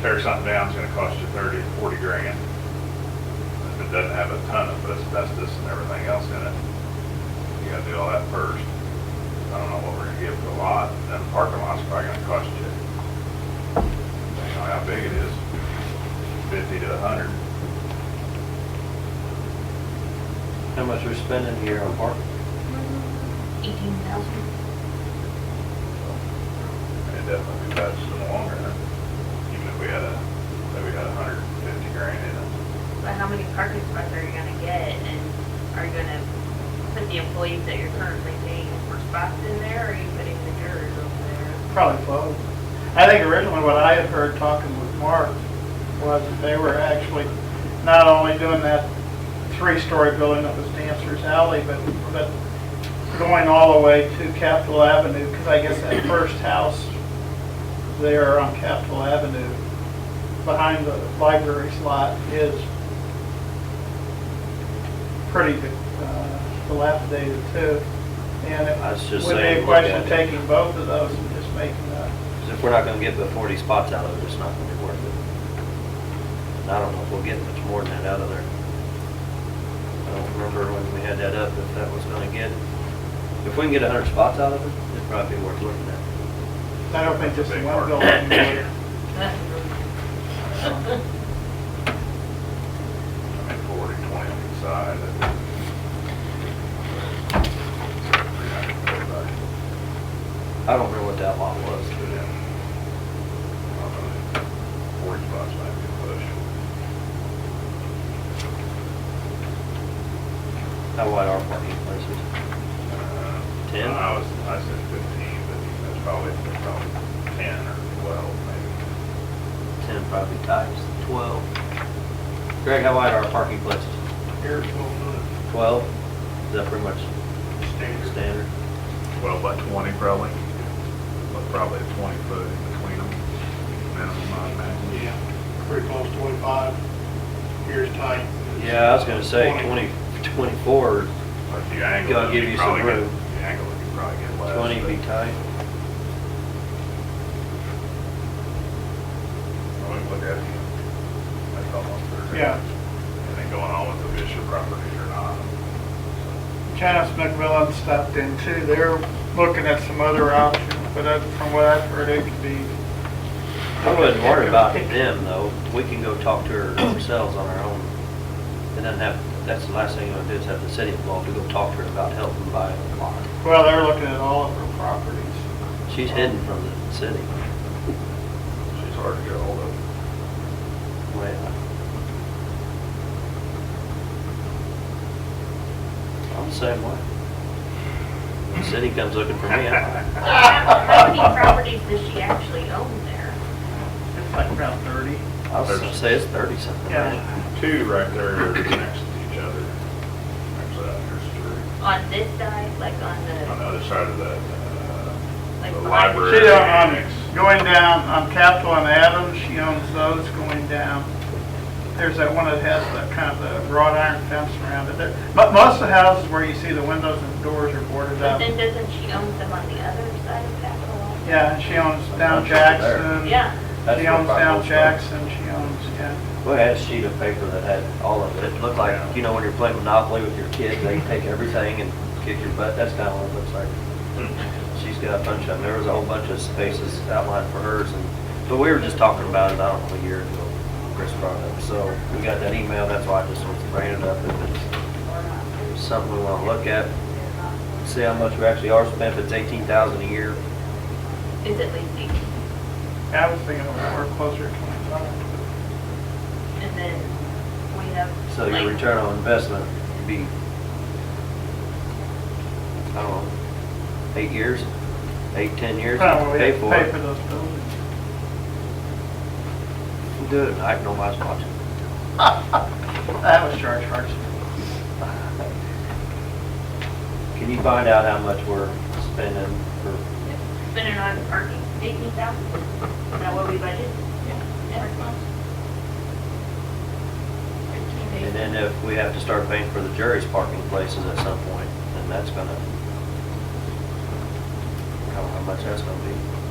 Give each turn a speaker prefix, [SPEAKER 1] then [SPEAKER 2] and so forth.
[SPEAKER 1] tear something down is gonna cost you thirty to forty grand. If it doesn't have a ton of asbestos and everything else in it, you gotta do all that first. I don't know what we're gonna give for a lot, then the parking lot's probably gonna cost you, you know, how big it is, fifty to a hundred.
[SPEAKER 2] How much we're spending here on parking?
[SPEAKER 3] Eighteen thousand.
[SPEAKER 1] And it definitely be better in the long run, even if we had a, if we had a hundred and fifty grand in it.
[SPEAKER 3] But how many parking spots are you gonna get, and are you gonna put the employees that you're currently paying for spots in there, or are you putting the jurors over there?
[SPEAKER 4] Probably both. I think originally what I had heard talking with Mark was that they were actually not only doing that three-story building that was Dancer's Alley, but, but going all the way to Capitol Avenue, because I guess that first house there on Capitol Avenue, behind the library slot, is pretty uh, dilapidated too. And
[SPEAKER 2] I was
[SPEAKER 4] it
[SPEAKER 2] just
[SPEAKER 4] would be
[SPEAKER 2] saying,
[SPEAKER 4] a
[SPEAKER 2] look
[SPEAKER 4] question
[SPEAKER 2] at
[SPEAKER 4] of
[SPEAKER 2] it.
[SPEAKER 4] taking both of those and just making a
[SPEAKER 2] 'Cause if we're not gonna get the forty spots out of it, it's not gonna be worth it. And I don't know if we'll get much more than that out of there. I don't remember when we had that up, if that was gonna get, if we can get a hundred spots out of it, it'd probably be worth looking at.
[SPEAKER 4] I don't think just
[SPEAKER 1] Big
[SPEAKER 4] one
[SPEAKER 1] market.
[SPEAKER 4] building would.
[SPEAKER 3] That's a really
[SPEAKER 1] I mean, forty, twenty on each side. that-
[SPEAKER 2] I don't remember what that lot was.
[SPEAKER 1] But, yeah. I don't know, Forty spots might be a push.
[SPEAKER 2] How wide are parking places?
[SPEAKER 1] Uh,
[SPEAKER 2] Ten?
[SPEAKER 1] I was, I said fifteen, but that's probably, probably ten or twelve maybe.
[SPEAKER 2] Ten probably times twelve. Greg, how wide are parking places?
[SPEAKER 5] Here, twelve foot,
[SPEAKER 2] Twelve? Is that pretty much
[SPEAKER 5] standard.
[SPEAKER 2] standard?
[SPEAKER 1] Twelve by twenty probably, but probably a twenty foot in between them, minimum, I imagine.
[SPEAKER 5] Yeah, pretty close to twenty-five. Here's tight.
[SPEAKER 2] Yeah, I was gonna say twenty, twenty-four,
[SPEAKER 1] But if you angle
[SPEAKER 2] Gotta
[SPEAKER 1] it,
[SPEAKER 2] give
[SPEAKER 1] you
[SPEAKER 2] you some
[SPEAKER 1] probably get,
[SPEAKER 2] room.
[SPEAKER 1] if you angle it, you probably get less.
[SPEAKER 2] twenty
[SPEAKER 1] but-
[SPEAKER 2] be tight.
[SPEAKER 1] Well, we look at it, that's almost there.
[SPEAKER 4] Yeah.
[SPEAKER 1] And then going on with the Bishop properties or not.
[SPEAKER 4] Janice McMillan stopped in too. They're looking at some other options, but I- from what I've heard, it could be.
[SPEAKER 2] I wouldn't worry about them, though. We can go talk to her ourselves on our own. And then have, that's the last thing I'm gonna do is have the city involved to go talk to her about helping buy a lot.
[SPEAKER 4] Well, they're looking at all of her properties.
[SPEAKER 2] She's hidden from the city.
[SPEAKER 1] She's hard to get hold of.
[SPEAKER 2] Well, I'm the same way. The city comes looking for me. I'm-
[SPEAKER 3] How many properties does she actually own there?
[SPEAKER 4] It's like around thirty.
[SPEAKER 2] I'll s- say it's thirty something.
[SPEAKER 4] Yeah.
[SPEAKER 1] Two right there next to each other. Actually, uh, there's three.
[SPEAKER 3] On this side, like on
[SPEAKER 1] On the
[SPEAKER 3] the,
[SPEAKER 1] other side of the, uh,
[SPEAKER 3] Like
[SPEAKER 1] the
[SPEAKER 3] behind-
[SPEAKER 1] library.
[SPEAKER 4] She uh, on,
[SPEAKER 1] annex.
[SPEAKER 4] going down on Capitol and Adams, she owns those going down. There's that one that has that kind of the wrought iron fence around it. There- But most of the houses where you see the windows and doors are boarded
[SPEAKER 3] but
[SPEAKER 4] up.
[SPEAKER 3] then doesn't she own some on the other side of Capitol?
[SPEAKER 4] Yeah, and she owns down
[SPEAKER 2] That's over there.
[SPEAKER 4] Jackson.
[SPEAKER 3] Yeah,
[SPEAKER 2] That's
[SPEAKER 4] She
[SPEAKER 2] where
[SPEAKER 4] owns down
[SPEAKER 2] Bible stuff.
[SPEAKER 4] Jackson, she owns, yeah.
[SPEAKER 2] We had a sheet of paper that had all of it. It looked like, you know, when you're playing Monopoly with your kid, they take everything and kick your butt. That's kind of what it looks like. She's got a bunch of, them. there was a whole bunch of spaces outlined for hers and, but we were just talking about it, I don't know, a year ago, Chris brought it up. So we got that email, that's why I just wanted to bring it up. If it's something we want to look at, see how much we actually are spending. If it's eighteen thousand a year,
[SPEAKER 3] is at least eighteen.
[SPEAKER 4] I was thinking we're closer to 25.
[SPEAKER 3] And then we have.
[SPEAKER 2] so your
[SPEAKER 3] like-
[SPEAKER 2] return on investment would be, I don't know, eight years, eight, ten years,
[SPEAKER 4] Probably
[SPEAKER 2] pay
[SPEAKER 4] have to
[SPEAKER 2] for
[SPEAKER 4] pay for
[SPEAKER 2] it.
[SPEAKER 4] those buildings.
[SPEAKER 2] We'll Do it, I know my spot.
[SPEAKER 4] That was George Hartson.
[SPEAKER 2] Can you find out how much we're spending for
[SPEAKER 3] Spending on parking, eighteen thousand, is that what we budgeted? Yeah.
[SPEAKER 2] And then if we have to start paying for the jury's parking places at some point, then that's gonna, I don't know how much that's gonna be.
[SPEAKER 4] Oh,